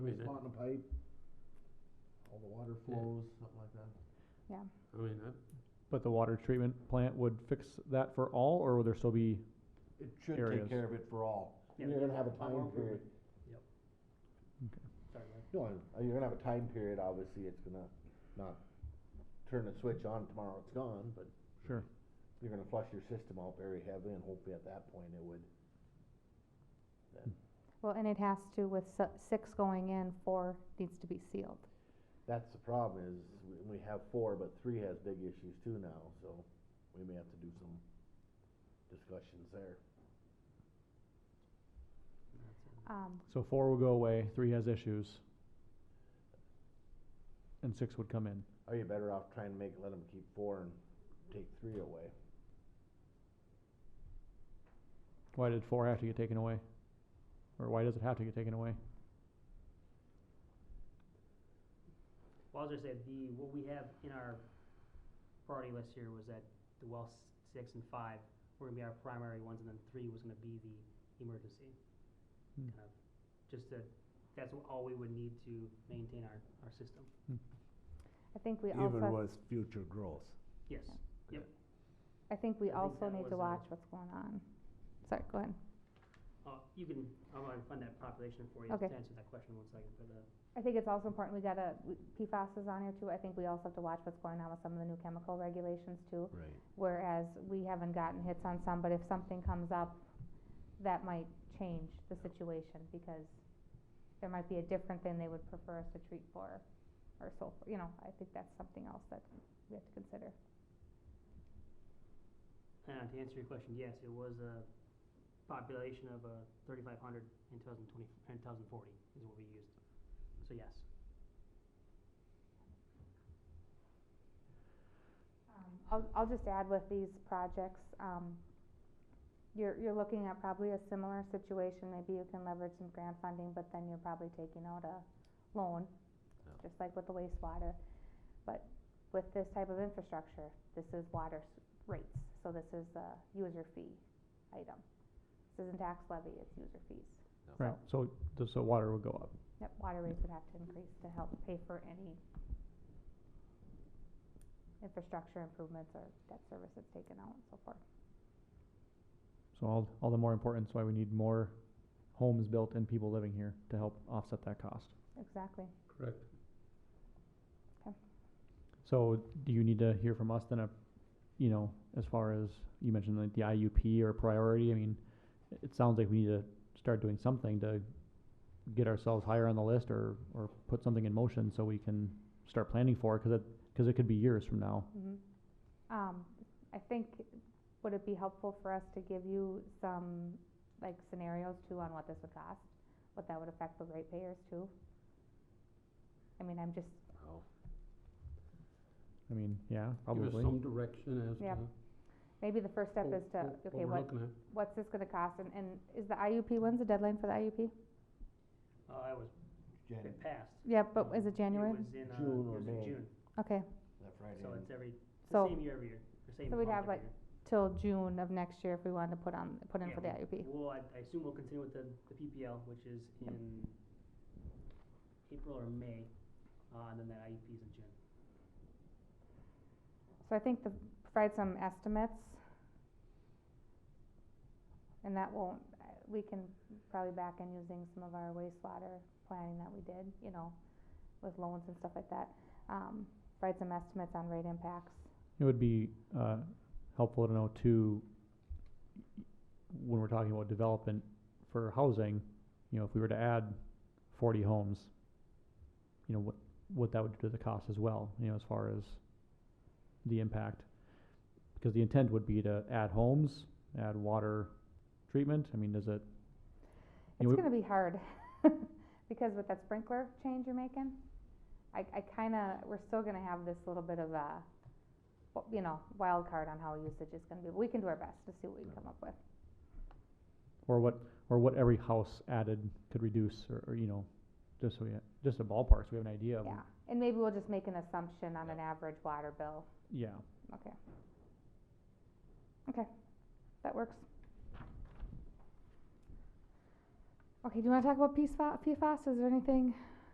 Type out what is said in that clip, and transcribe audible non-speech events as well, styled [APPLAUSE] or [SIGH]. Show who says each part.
Speaker 1: mean,
Speaker 2: Just
Speaker 1: it-
Speaker 2: Spotting a pipe, all the water flows, something like that.
Speaker 1: I mean, I,
Speaker 3: But the water treatment plant would fix that for all, or would there still be,
Speaker 2: It should
Speaker 3: Areas.
Speaker 2: take care of it for all.
Speaker 4: Yeah.
Speaker 2: You're gonna have a
Speaker 4: Well,
Speaker 2: time
Speaker 4: we're-
Speaker 2: period.
Speaker 4: Sorry, Mike.
Speaker 2: No, I- you're gonna have a time period, obviously, it's gonna not turn the switch on tomorrow, it's gone, but
Speaker 3: sure,
Speaker 2: you're gonna flush your system out very heavily and hopefully at that point it would.
Speaker 5: Well, and it has to, with si- six going in, four needs to be sealed.
Speaker 2: That's the problem is, we- we have four, but three has big issues too now, so we may have to do some discussions there.
Speaker 5: Um,
Speaker 3: so four will go away, three has issues. And six would come in,
Speaker 2: Are you better off trying to make, let them keep four and take three away?
Speaker 3: why did four have to get taken away? Or why does it have to get taken away?
Speaker 4: Well, I was just saying, the, what we have in our priority list here was that the well s- six and five were gonna be our primary ones, and then three was gonna be the emergency.
Speaker 3: Hmm.
Speaker 4: Kind of, just to, that's all we would need to maintain our, our system,
Speaker 5: I think we also,
Speaker 2: with future growth.
Speaker 4: yes.
Speaker 5: I think we
Speaker 4: I think
Speaker 5: also
Speaker 4: that
Speaker 5: need
Speaker 4: was a-
Speaker 5: to watch what's going on. Sorry, go ahead.
Speaker 4: Uh, you can, I'm gonna find that population for you, to
Speaker 5: Okay.
Speaker 4: answer that question in one second, but, uh,
Speaker 5: I think it's also important, we gotta, we- PFAS is on here too, I think we also have to watch what's going on with some of the new chemical regulations too.
Speaker 2: Right.
Speaker 5: Whereas we haven't gotten hits on some, but if something comes up, that might change the situation because there might be a different thing they would prefer us to treat for or so, you know, I think that's something else that we have to consider.
Speaker 4: and Uh, to answer your question, yes, it was a population of, uh, thirty-five hundred in two thousand twenty, in two thousand forty is what we used, so yes.
Speaker 5: Um, I'll, I'll just add with these projects, um, you're, you're looking at probably a similar situation, maybe you can leverage some grant funding, but then you're probably taking out a loan,
Speaker 2: Yeah.
Speaker 5: just like with the wastewater. But with this type of infrastructure, this is water s- rates, so this is a user fee item. This isn't tax levy, it's user fees.
Speaker 3: Right, so, th- so water would go up.
Speaker 5: Yep, water rates would have to increase to help pay for any infrastructure improvements or debt service that's taken out and so forth.
Speaker 3: So all, all the more importance why we need more homes built and people living here to help offset that cost.
Speaker 5: Exactly.
Speaker 1: correct.
Speaker 3: So do you need to hear from us then, a, you know, as far as, you mentioned like the IUP or priority, I mean, it- it sounds like we need to start doing something to get ourselves higher on the list or, or put something in motion so we can start planning for it, cause it, cause it could be years from now.
Speaker 5: Mhm. Um, I think, would it be helpful for us to give you some, like, scenarios too on what this would cost? What that would affect the ratepayers too? I mean, I'm just,
Speaker 3: I mean, yeah,
Speaker 1: Give us
Speaker 3: probably.
Speaker 1: some direction as
Speaker 5: Yep.
Speaker 1: to. Mm-hmm.
Speaker 5: maybe the first step
Speaker 1: what-
Speaker 5: is to,
Speaker 1: what-
Speaker 5: okay,
Speaker 1: we're
Speaker 5: what,
Speaker 1: looking at.
Speaker 5: what's this gonna cost? And, and is the IUP, when's the deadline for the IUP?
Speaker 4: Uh, I was,
Speaker 2: Jan,
Speaker 4: it passed,
Speaker 5: Yeah, but is it January?
Speaker 4: It was in, uh,
Speaker 2: June
Speaker 4: it
Speaker 2: or
Speaker 4: was in
Speaker 2: May.
Speaker 4: June,
Speaker 5: Okay,
Speaker 2: that Friday.
Speaker 4: so
Speaker 2: in-
Speaker 4: it's every, it's the
Speaker 5: So-
Speaker 4: same year every year, the same
Speaker 5: so we'd
Speaker 4: month
Speaker 5: have,
Speaker 4: every
Speaker 5: like,
Speaker 4: year.
Speaker 5: till June of next year if we wanted to put on, put in
Speaker 4: Yeah,
Speaker 5: for the IUP.
Speaker 4: Well, I, I assume we'll continue with the, the PPL, which is in April or May, uh, and then that IEP is in June.
Speaker 5: So I think the, provide some estimates. And that won't, uh, we can probably back in using some of our wastewater planning that we did, you know, with loans and stuff like that. Um, provide some estimates on rate impacts.
Speaker 3: It would be, uh, helpful to know too, when we're talking about development for housing, you know, if we were to add forty homes, you know, what, what that would do to the cost as well, you know, as far as the impact. Because the intent would be to add homes, add water treatment, I mean, does it? you know,
Speaker 5: It's
Speaker 3: we-
Speaker 5: gonna be hard, [LAUGHS] because with that sprinkler change you're making, I, I kinda, we're still gonna have this little bit of a, w- you know, wild card on how usage is gonna be, but we can do our best to see what we can come up with.
Speaker 3: Or what, or what every house added could reduce, or, or, you know, just so we, ha- just a ballpark, so we have an idea of,
Speaker 5: Yeah, and maybe we'll just make an assumption on an average water bill,
Speaker 3: yeah,
Speaker 5: okay. Okay, that works. Okay, do you wanna talk about PFAS, PFAS, is there anything